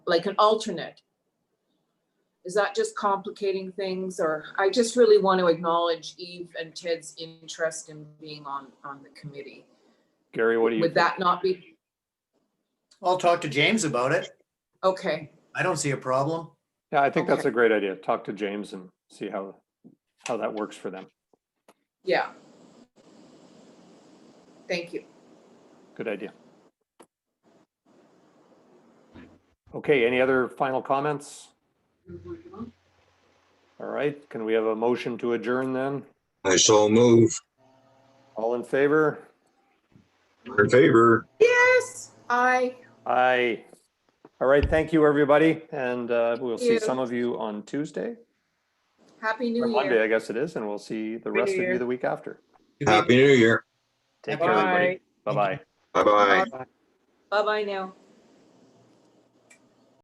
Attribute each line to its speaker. Speaker 1: like an alternate. Is that just complicating things or I just really want to acknowledge Eve and Ted's interest in being on, on the committee.
Speaker 2: Gary, what do you?
Speaker 1: Would that not be,
Speaker 3: I'll talk to James about it.
Speaker 1: okay,
Speaker 3: I don't see a problem.
Speaker 2: Yeah, I think that's
Speaker 1: Okay.
Speaker 2: a great idea. Talk to James and see how, how that works for them.
Speaker 1: yeah. Thank you.
Speaker 2: Good idea. Okay, any other final comments?
Speaker 1: Mm-hmm.
Speaker 2: All right, can we have a motion to adjourn then?
Speaker 4: I shall move
Speaker 2: All in favor?
Speaker 4: in favor.
Speaker 1: Yes, I,
Speaker 2: Aye. All right, thank you, everybody, and uh, we'll see
Speaker 1: you.
Speaker 2: some of you on Tuesday,
Speaker 1: Happy
Speaker 2: or
Speaker 1: New
Speaker 2: Monday,
Speaker 1: Year.
Speaker 2: I guess it is, and we'll see the
Speaker 1: Happy
Speaker 2: rest of
Speaker 1: New
Speaker 2: you
Speaker 1: Year.
Speaker 2: the week after.
Speaker 4: Happy New Year.
Speaker 2: Take care, everybody. Bye-bye.
Speaker 4: Bye bye.
Speaker 1: Bye-bye now.